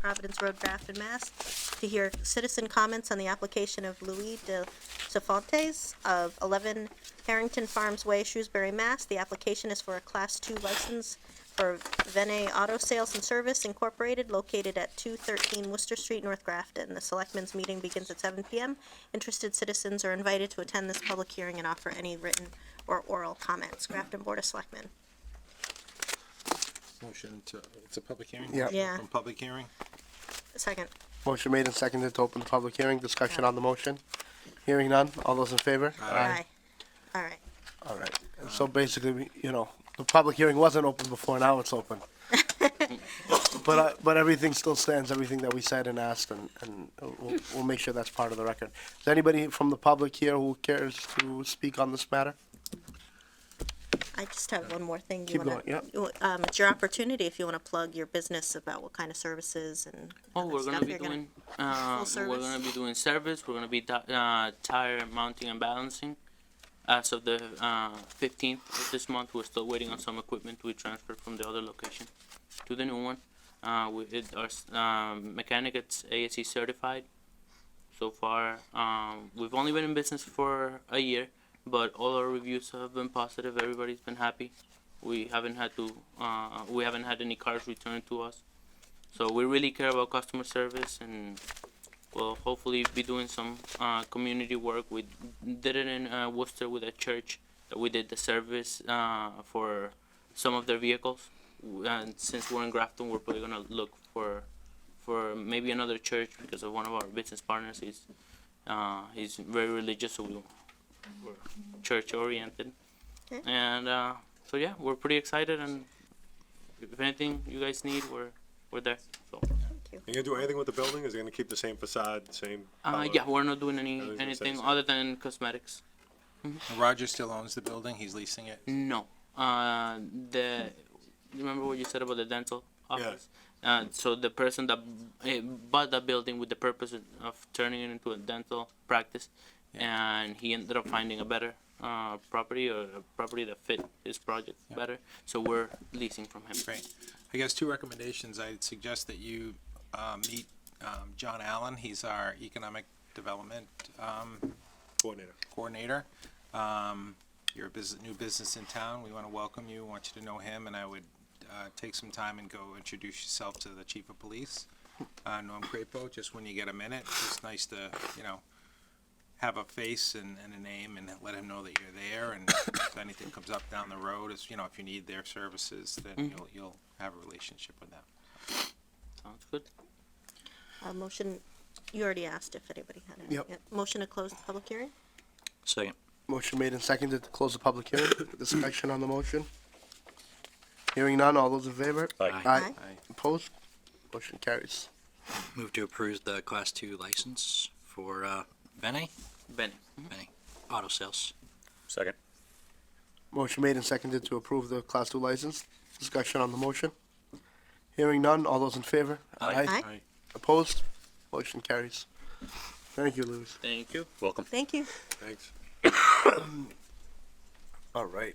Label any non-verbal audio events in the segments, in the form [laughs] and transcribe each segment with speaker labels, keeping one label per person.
Speaker 1: Providence Road, Grafton, Mass. To hear citizen comments on the application of Louis de Cefontes of eleven Harrington Farms Way, Shrewsbury, Mass. The application is for a class two license for Vene Auto Sales and Service Incorporated located at two thirteen Worcester Street, North Grafton. The selectmen's meeting begins at seven PM. Interested citizens are invited to attend this public hearing and offer any written or oral comments. Grafton Board of Selectmen.
Speaker 2: Motion to, it's a public hearing?
Speaker 3: Yeah.
Speaker 1: Yeah.
Speaker 2: Open Public hearing?
Speaker 1: Second.
Speaker 3: Motion made and seconded to open the public hearing. Discussion on the motion. Hearing none. All those in favor?
Speaker 1: All right.
Speaker 3: All right. And so basically, we- you know, the public hearing wasn't open before, now
Speaker 1: [laughs]
Speaker 3: it's open. But, uh, but everything still stands, everything that we said and asked, and, and we'll, we'll make sure that's part of the record. Is anybody from the public here who cares to speak on this matter?
Speaker 1: I just have one more thing. You
Speaker 3: Keep
Speaker 1: wanna-
Speaker 3: going,
Speaker 1: Um, it's your opportunity if you want to plug your business about what kind of services and.
Speaker 4: Oh,
Speaker 1: other
Speaker 4: we're gonna
Speaker 1: stuff
Speaker 4: be
Speaker 1: you're gonna-
Speaker 4: doing, uh, we're
Speaker 1: service.
Speaker 4: gonna be doing service, we're gonna be ti- uh, tire mounting and balancing. As of the, uh, fifteenth of this month, we're still waiting on some equipment we transferred from the other location to the new one. Uh, we, it, our, s- um, mechanic gets ASE certified. So far, um, we've only been in business for a year, but all our reviews have been positive, everybody's been happy. We haven't had to, uh, we haven't had any cars returned to us. So we really care about customer service and we'll hopefully be doing some uh, community work. We did it in uh, Worcester with a church that we did the service uh, for some of their vehicles. And since we're in Grafton, we're probably gonna look for for maybe another church because of one of our business partners. He's uh, he's very religious, so we- we're church oriented.
Speaker 1: Okay.
Speaker 4: And uh, so yeah, we're pretty excited. And if anything you guys need, we're we're there. So.
Speaker 5: You gonna do anything with the building? Is it gonna keep the same facade, same?
Speaker 4: Uh,
Speaker 5: color?
Speaker 4: yeah, we're not doing
Speaker 5: I was
Speaker 4: any
Speaker 5: gonna say
Speaker 4: anything
Speaker 5: something.
Speaker 4: other than cosmetics.
Speaker 2: And Roger still owns the building, he's leasing it.
Speaker 4: No. Uh, the remember what you said about the dental office. Uh, so the person that eh, bought the building with the purpose of turning it into a dental practice, and he ended up finding a better uh, property or a property that fit his project better. So we're leasing from him.
Speaker 2: Great. I guess two recommendations. I'd suggest that you uh, meet um, John Allen. He's our economic development um,
Speaker 5: Coordinator.
Speaker 2: coordinator. Um, You're a business, new business in town. We want to welcome you, want you to know him, and I would uh, take some time and go introduce yourself to the chief of police, uh, Norm Crapo, just when you get a minute. It's nice to, you know, have a face and, and a name and let him know that you're there and if anything comes up down the road, is, you know, if you need their services, then you'll, you'll have a relationship with them.
Speaker 4: Sounds good.
Speaker 1: Uh, motion, you already asked if anybody had any.
Speaker 3: Yep.
Speaker 1: Motion to close the public hearing?
Speaker 6: Second.
Speaker 3: Motion made and seconded to close the public hearing. Discussion on the motion. Hearing none. All those in favor?
Speaker 6: Aye.
Speaker 3: Aye.
Speaker 2: Aye.
Speaker 3: Opposed? Motion carries.
Speaker 6: Move to approve the Class 2 license for uh, Vene
Speaker 4: Benny.
Speaker 6: Auto Sales.
Speaker 7: Second.
Speaker 3: Motion made and seconded to approve the Class 2 license. Discussion on the motion. Hearing none, all those in favor?
Speaker 6: Aye.
Speaker 1: Aye.
Speaker 2: Aye.
Speaker 3: Opposed? Motion carries. Thank you, Louis.
Speaker 4: Thank you.
Speaker 7: Welcome.
Speaker 1: Thank you. [laughs]
Speaker 5: Thanks.
Speaker 3: All right.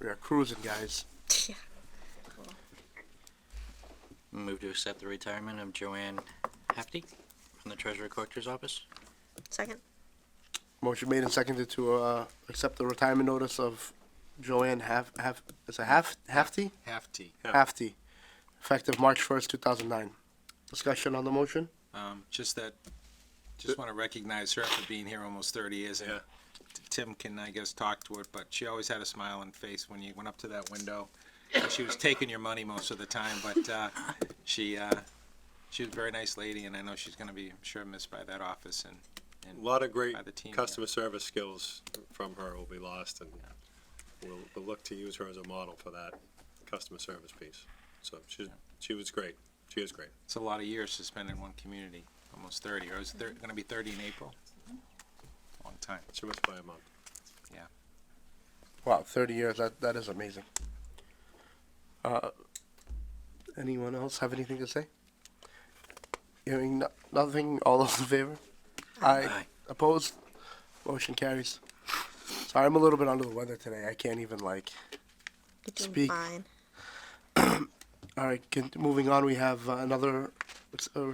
Speaker 3: We are cruising, guys.
Speaker 1: Yeah.
Speaker 6: Move to accept the retirement of Joanne Hefty from the Treasurer Collector's Office.
Speaker 1: Second?
Speaker 3: Motion made and seconded to uh, accept the retirement notice of Joanne Haf, Haf, is it Haf, Hafty?
Speaker 2: Half T.
Speaker 3: Hafty, effective March 1st, 2009. Discussion on the motion?
Speaker 2: Um, just that, just want to recognize her for being here almost thirty years. and Tim can, I guess, talk to it, but she always had a smile on face when you went up to that window. She was taking your money most of the time, but, uh, she, uh, she was a very nice lady and I know she's gonna be, I'm sure, missed by that office and,
Speaker 5: A
Speaker 2: and.
Speaker 5: lot of great
Speaker 2: By the team, yeah.
Speaker 5: customer service skills from her will be lost and we'll, we'll look to use her as a model for that customer service piece. So she, she was great. She is great.
Speaker 2: It's a lot of years to spend in one community, almost thirty, or is it gonna be thirty in April? Long time.
Speaker 5: She must buy a month.
Speaker 3: Wow, 30 years, that, that is amazing. Uh, anyone else have anything to say? Hearing no- nothing, all those in favor? Aye.
Speaker 6: Aye.
Speaker 3: Opposed? Motion carries. Sorry, I'm a little bit under the weather today. I can't even like.
Speaker 1: You're doing
Speaker 3: Speak.
Speaker 1: fine.
Speaker 3: All right, can, moving on, we have uh, another It's a